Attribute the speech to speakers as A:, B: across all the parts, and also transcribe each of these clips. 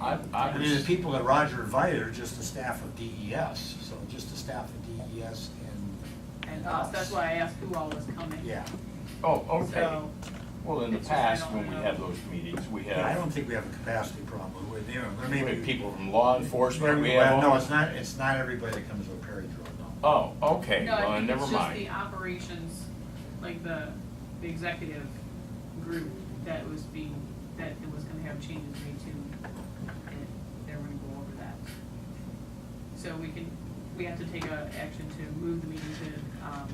A: I, I
B: I mean, the
A: was,
B: people that Roger invited are just the staff of DES, so just the staff of DES and.
C: And us, that's why I asked who all was coming.
B: Yeah,
A: oh, okay.
C: So,
A: Well, in the
C: it's just I
A: past,
C: don't
A: when we
C: know.
A: had those meetings, we
B: I
A: had,
B: don't think we have a capacity problem, we, there, there
A: we
B: may
A: had
B: be.
A: people from law enforcement,
B: Well,
A: we had.
B: No,
A: all-
B: it's not, it's not everybody that comes to a Perry Drill, no.
A: Oh, okay,
C: No, I
A: well,
C: think
A: never
C: it's just the
A: mind.
C: operations, like the, the executive group that was being, that it was gonna have changes made to, and they're gonna go over that. So we can, we have to take a action to move the meeting to, um,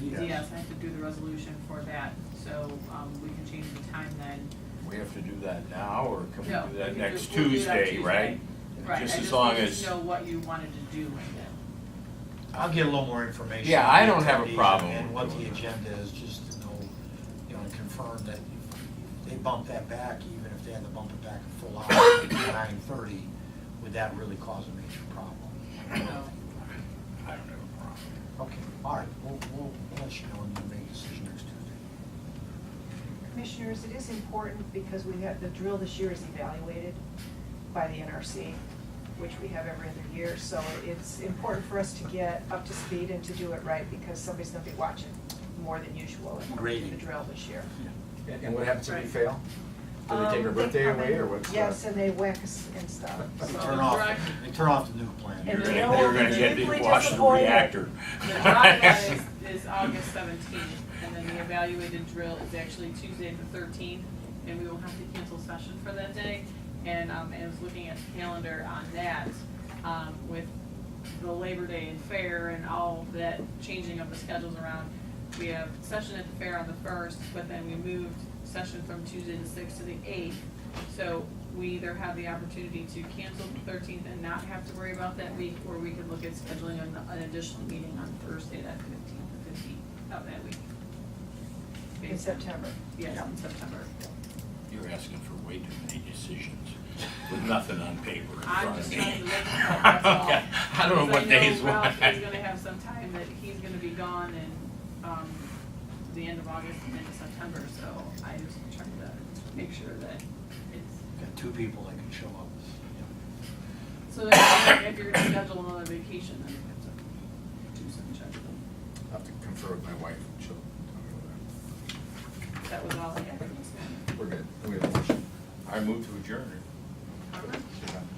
B: Yes.
C: yes, I have to do the resolution for that, so, um, we can change the time then.
A: We have to do that now, or can
C: No,
A: we do
C: we
A: that
C: can
A: next
C: do- we'll do that
A: Tuesday,
C: Tuesday.
A: right?
C: Right, I
A: Just as
C: just
A: long
C: wanted to
A: as,
C: know what you wanted to do with it.
B: I'll get a little more information.
A: Yeah,
B: on
A: I
B: the
A: don't have a
B: attendees
A: problem
B: And
A: with
B: what
A: doing
B: the
A: that.
B: agenda is, just to know, you know, and confirm that if they bump that back, even if they had to bump it back a full hour to nine thirty, would that really cause a major problem?
C: So,
A: I don't have a problem.
B: Okay, all right, we'll, we'll we'll let you know and you make a decision next Tuesday.
D: Commissioners, it is important because we have, the drill this year is evaluated by the NRC, which we have every other year, so it's important for us to get up to speed and to do it right because somebody's gonna be watching more than usual in order to do the
B: Grading.
D: drill this year.
E: And and what happens if
C: Right.
E: we fail? Do they take our
D: Um,
E: birthday
D: come
E: away
D: in-
E: or what's? the-
D: Yes, and they whack us and stuff.
C: So
B: Turn
C: the
B: off,
C: direct-
B: they turn off the nuke plant.
A: You're
D: And you know
A: gonna, you're
D: what?
A: gonna get to
D: Deeply
A: watch the
D: disappointed.
A: reactor.
C: The drive is, is August seventeenth, and then the evaluated drill is actually Tuesday the thirteenth, and we will have to cancel session for that day. And, um, I was looking at the calendar on that, um, with the Labor Day and fair and all of that changing of the schedules around. We have session at the fair on the first, but then we moved session from Tuesday the sixth to the eighth. So we either have the opportunity to cancel the thirteenth and not have to worry about that week, or we could look at scheduling an, an additional meeting on Thursday, that fifteenth, the fifteenth of that week.
D: In September.
C: Yes, in September.
A: You're asking for way too many decisions with nothing on paper in
C: I'm
A: front of
C: just
A: me.
C: trying to look at that, that's all.
A: I don't know
C: Because
A: what days.
C: I know Ralph
A: what.
C: is gonna have some time that he's gonna be gone in, um, the end of August and into September, so I just trying to make sure that it's
B: Got two people that can show up.
C: So if you're- if you're gonna schedule another vacation, then you have to do some checking.
E: I'll have to confer with my wife and she'll tell me whether
C: That was all I had.
E: we're good. We have a motion.
A: I move to adjourn.
C: All right.
E: She's on.